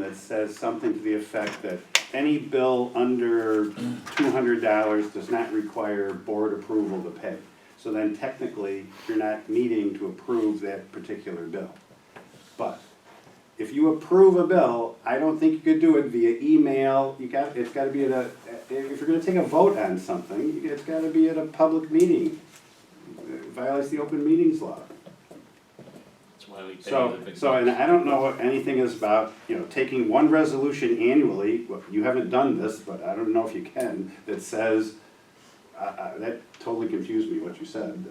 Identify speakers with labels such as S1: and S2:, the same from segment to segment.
S1: that says something to the effect that any bill under two hundred dollars does not require board approval to pay. So then technically, you're not needing to approve that particular bill. But if you approve a bill, I don't think you could do it via email, you got, it's gotta be at a, if you're gonna take a vote on something, it's gotta be at a public meeting. It Violates the open meetings law.
S2: That's why we pay
S1: So,
S2: the big
S1: so,
S2: bucks.
S1: and I don't know what anything is about, you know, taking one resolution annually, well, you haven't done this, but I don't know if you can, that says, uh, uh, that totally confused me what you said.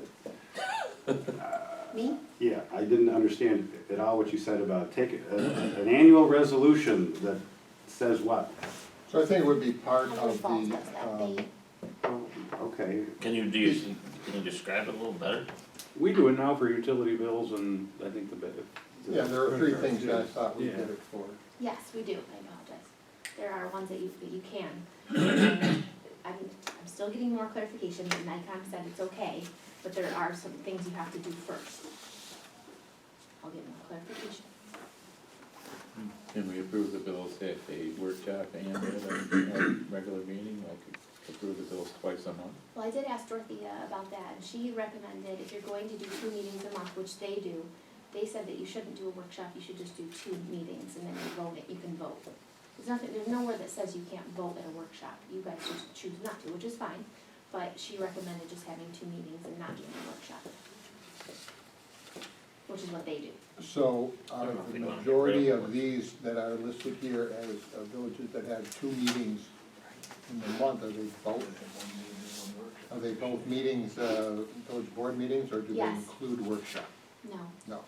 S3: Me?
S1: Yeah, I didn't understand at all what you said about take, a- an annual resolution that says what?
S4: So I think it would be part
S3: Niagara
S4: of the,
S3: Falls does that,
S4: um,
S3: they,
S1: Okay,
S2: Can you do, you- can you describe it a little better?
S5: We do it now for utility bills and I think the bit. the
S4: yeah, there are three
S5: credit
S4: things
S5: cards,
S4: that I
S5: yeah.
S4: thought we
S5: Yeah.
S4: did it for.
S3: yes, we do, I apologize. There are ones that you, that you can. I'm, I'm still getting more clarification, but Nikon said it's okay, but there are some things you have to do first. I'll get more clarification.
S6: And we approve the bills at a workshop and at a regular meeting, like approve the bills twice a month.
S3: Well, I did ask Dorothea about that, and she recommended if you're going to do two meetings a month, which they do, they said that you shouldn't do a workshop, you should just do two meetings, and then you vote it, you can vote. There's nothing, there's nowhere that says you can't vote at a workshop, you guys just choose not to, which is fine, but she recommended just having two meetings and not doing a workshop. Which is what they do.
S4: So
S2: I
S4: out
S2: don't know
S4: of
S2: if
S4: the
S2: we wanna get
S4: majority
S2: rid of
S4: of
S2: one.
S4: these that are listed here as uh, villages that have two meetings in the month, are they both? Are they both meetings, uh, village board meetings, or do they
S3: Yes.
S4: include workshop?
S3: No,
S4: No.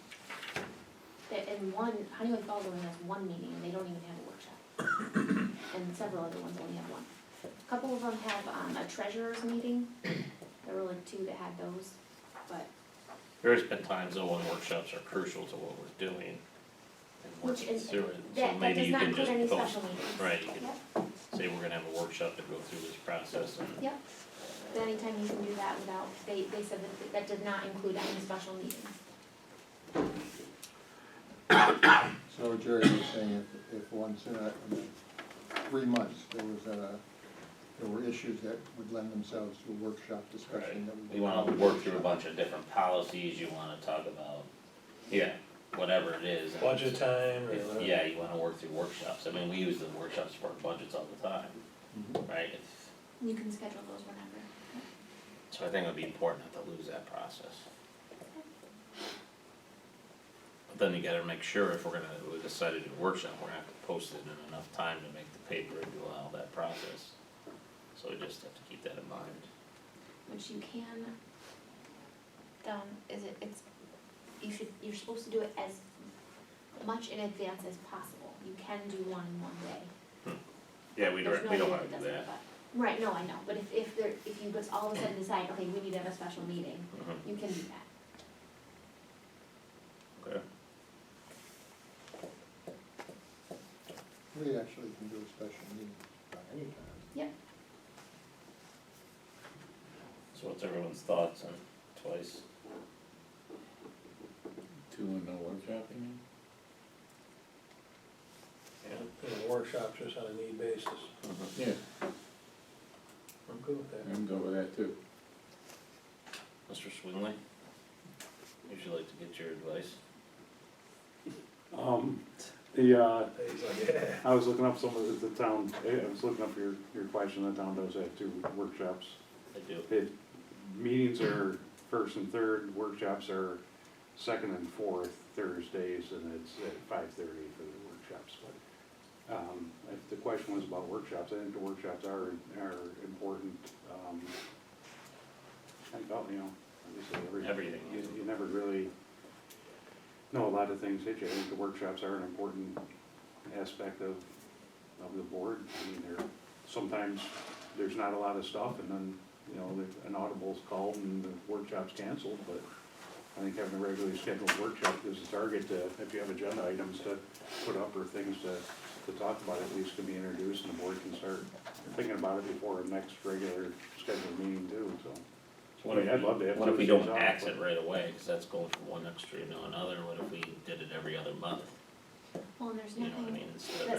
S3: They- and one, Honeywell Falls only has one meeting, and they don't even have a workshop. And several other ones only have one. A Couple of them have, um, a treasurer's meeting, there were like two that had those, but,
S2: There's been times though when workshops are crucial to what we're doing and
S3: which
S2: working
S3: is,
S2: through it, so
S3: that, that
S2: maybe
S3: does
S2: you
S3: not
S2: can
S3: include any
S2: just post,
S3: special meetings.
S2: right, you can
S3: Yep,
S2: say we're gonna have a workshop to go through this process and
S3: yep, but anytime you can do that without, they, they said that, that did not include any special meetings.
S4: So Jerry was saying if, if once in a, in a three months, there was a, there were issues that would lend themselves to a workshop discussion that we.
S2: you wanna work through a bunch of different policies, you wanna talk about, yeah, whatever it is. and-
S7: budget time or whatever.
S2: Yeah, you wanna work through workshops, I mean, we use the workshops for our budgets all the time,
S4: Mhm.
S2: right? If-
S3: You can schedule those whenever.
S2: So I think it would be important not to lose that process. But then you gotta make sure if we're gonna, we decide to do a workshop, we're gonna have to post it in enough time to make the paper and do all that process. So we just have to keep that in mind.
S3: which you can, um, is it, it's, you should, you're supposed to do it as much in advance as possible. You can do one in one day.
S2: Yeah, we
S3: There's
S2: don't,
S3: no
S2: we
S3: way
S2: don't
S3: that
S2: wanna
S3: it
S2: do
S3: doesn't,
S2: that.
S3: but, right, no, I know, but if, if there, if you just all of a sudden decide, okay, we need to have a special meeting,
S2: Mhm,
S3: you can do that.
S2: Okay.
S4: We actually can do a special meeting at any time.
S2: So what's everyone's thoughts on twice?
S6: Two and no workshop, you mean?
S7: You know, workshops just on a need basis.
S2: Mm-hmm.
S6: Yeah,
S7: I'm good with that.
S6: I'm good with that too.
S2: Mr. Swinley? Would you like to get your advice?
S5: Um, the, uh,
S7: He's like, yeah.
S5: I was looking up some of the, the town, I was looking up your, your question, the town does have two workshops.
S2: I do.
S5: It, meetings are first and third, workshops are second and fourth Thursdays, and it's at five thirty for the workshops, but, um, if the question was about workshops, I think the workshops are, are important, um, I think, about, you know, obviously every.
S2: Everything.
S5: You, you never really know a lot of things, that you? I think the workshops are an important aspect of, of the board. I mean, there, sometimes there's not a lot of stuff, and then, you know, the- an audible's called and the workshop's canceled, but I think having a regularly scheduled workshop is a target to, if you have agenda items to put up or things to, to talk about, at least can be introduced, and the board can start thinking about it before our next regular scheduled meeting too, so.
S2: So What if,
S5: I'd love to have
S2: what if we
S5: Tuesdays
S2: don't
S5: off,
S2: axe
S5: but-
S2: it right away, cause that's going from one extreme to another, what if we did it every other month?
S3: Well, and there's
S2: You know what I
S3: nothing
S2: mean, instead of
S3: that